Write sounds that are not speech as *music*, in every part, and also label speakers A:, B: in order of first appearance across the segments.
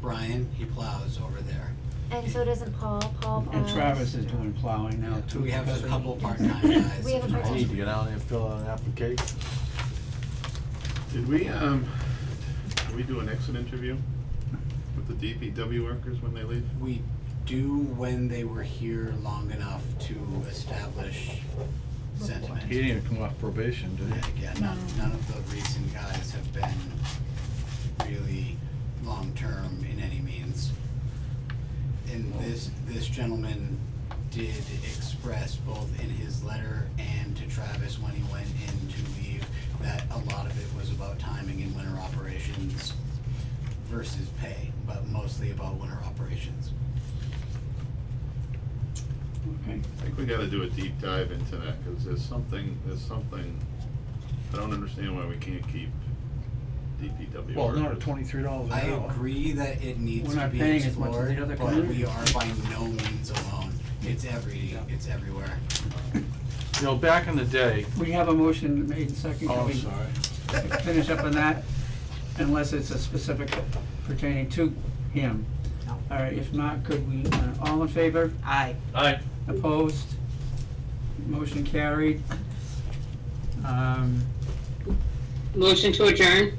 A: Brian, he plows over there.
B: And so doesn't Paul, Paul plows.
C: And Travis is doing plowing now too.
A: We have
C: because
A: a
C: we-
A: couple part-time guys.
B: We have a
A: that
B: part-time-
A: plow.
D: I need to get out there and fill out an application.
E: Did we, um, did we do an exit interview with the DPW workers when they leave?
A: We do when they were here long enough to establish sentiment.
D: He didn't even come off probation, did
A: Yeah,
D: he?
A: yeah, none, none of the recent guys have been really long-term in any means. And this, this gentleman did express both in his letter and to Travis when he went in to leave that a lot of it was about timing and winter operations versus pay, but mostly about winter operations.
C: Okay.
E: I think we gotta do a deep dive into that, cause there's something, there's something, I don't understand why we can't keep DPW workers.
D: Well, not at twenty-three dollars an
A: I
D: hour.
A: agree that it needs
C: We're
A: to
C: not
A: be
C: paying as much as
A: explored,
C: the other
A: but we are
C: communities.
A: by no means alone. It's every, it's everywhere.
D: You know, back in the day,
C: We have a motion made and seconded.
D: oh,
C: Can
D: I'm
C: we
D: sorry,
C: Finish up on that unless it's a specific pertaining to him.
F: No.
C: All right, if not, could we, uh, all in favor?
F: Aye.
C: Opposed? Motion carried. Um,
G: Motion to adjourn?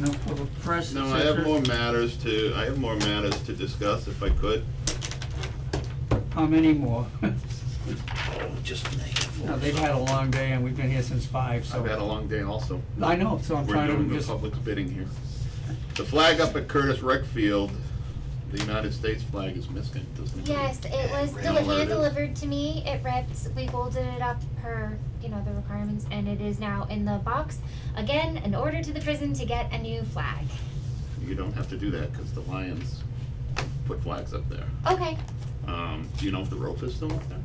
C: no public press, et
E: No, I have
C: cetera.
E: more matters to, I have more matters to discuss if I could.
C: How many more?
E: Oh, just a
C: Now, they've had a long day and we've been here since five, so.
E: I've had a long day also.
C: I know, so I'm
E: We're
C: trying
E: doing
C: to
E: the
C: just,
E: public's bidding here. The flag up at Curtis Rec Field, the United States flag is missing, doesn't it?
B: Yes, it was
A: Yeah,
B: deli-
E: where it
B: hand
E: is.
B: delivered to me. It reps, we folded it up per, you know, the requirements and it is now in the box. Again, an order to the prison to get a new flag.
E: You don't have to do that, cause the Lions put flags up there.
B: Okay,
E: Um, do you know if the rope is still up there?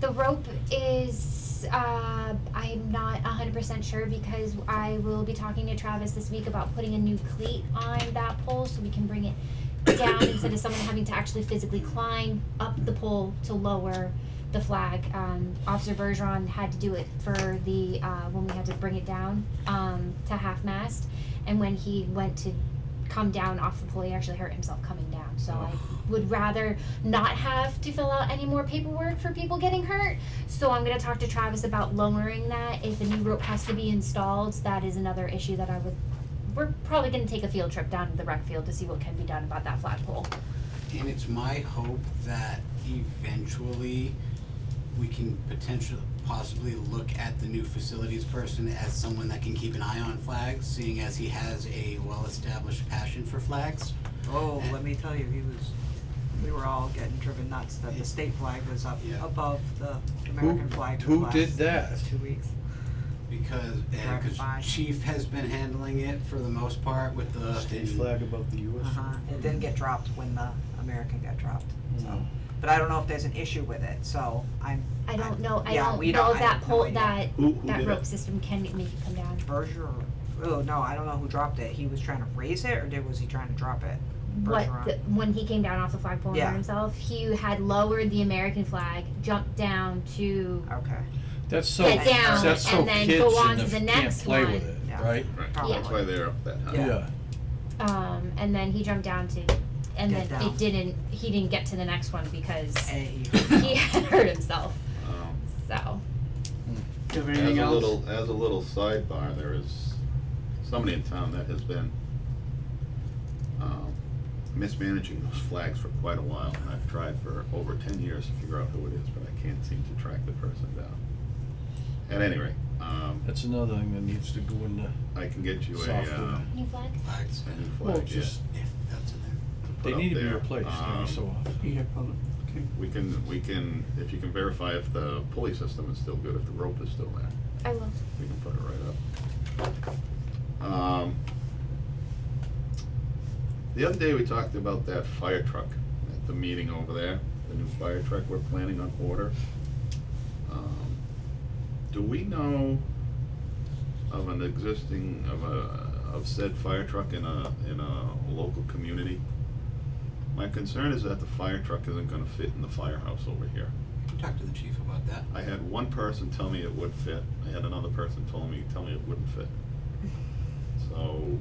B: the rope is, uh, I'm not hundred percent sure because I will be talking to Travis this week about putting a new cleat on that pole so we can bring it down instead of someone having to actually physically climb up the pole to lower the flag. Um, Officer Bergeron had to do it for the uh, when we had to bring it down um, to half mast, and when he went to come down off the pole, he actually hurt himself coming down. So I would rather not have to fill out any more paperwork for people getting hurt. So I'm gonna talk to Travis about lowering that. If a new rope has to be installed, that is another issue that I would. We're probably gonna take a field trip down to the rec field to see what can be done about that flagpole.
A: And it's my hope that eventually we can potentially, possibly look at the new facilities person as someone that can keep an eye on flags, seeing as he has a well-established passion for flags.
F: Oh, let me tell you, he was, we were all getting driven nuts that the state flag was up
A: Yeah.
F: above the
D: who,
F: American flag for the
D: who
F: last
D: did that?
F: two weeks.
A: Because, and 'cause
F: Right.
A: Chief has been handling it for the most part with the.
D: State flag above the US.
F: Uh-huh, it didn't get dropped when the American got dropped,
D: Hmm.
F: so, but I don't know if there's an issue with it, so I'm.
B: I don't
F: I'm-
B: know. I
F: yeah,
B: don't
F: we
B: know
F: I
B: if that
F: have no
B: pole
F: idea.
B: that
E: Who- who
B: that
E: did
B: rope
E: it?
B: system can make it come down.
F: Berger, or- oh, no, I don't know who dropped it, he was trying to raise it, or did, was he trying to drop it?
B: What
F: Bergeron.
B: the, when he came down off the flagpole and
F: Yeah.
B: hurt himself, he had lowered the American flag, jumped down to
F: Okay,
D: That's so,
B: Get
F: down
D: that's so
B: and then
D: kids
B: go on
D: in
B: to the
D: the, can't
B: next
D: play
B: one.
D: with it,
F: Yeah.
D: right?
E: Right,
F: Probably.
E: that's why they're up that high.
F: Yeah.
B: um, and then he jumped down to, and
F: Get
B: then
F: down.
B: it didn't. He didn't get to the next one
F: *coughs*
B: because
F: and
D: E
F: he.
B: he had hurt himself.
E: Um,
B: So
C: do you have
E: As
C: anything
E: a
C: else?
E: little, as a little sidebar, there is somebody in town that has been, um, mismanaging those flags for quite a while, and I've tried for over ten years to figure out who it is, but I can't seem to track the person down. At any rate, um,
D: That's another thing that needs to go in the,
E: I can get you a,
D: Software.
E: um,
B: new flag.
A: Flags,
E: a new
D: well,
E: flag, yeah,
D: just,
A: yeah, that's in there.
E: to put
D: they
E: up
D: need to be
E: there.
D: replaced every
E: Um,
D: so often.
C: Peter, public, okay.
E: We can, we can, if you can verify if the pulley system is still good, if the rope is still there,
B: I will.
E: we can put it right up. Um, the other day we talked about that fire truck at the meeting over there, the new fire truck we're planning on order. Um, Do we know of an existing, of a, of said fire truck in a, in a local community? My concern is that the fire truck isn't gonna fit in the firehouse over here.
A: We talked to the chief about that.
E: I had one person tell me it would fit, I had another person tell me, tell me it wouldn't fit. So,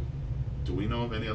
E: do we know of any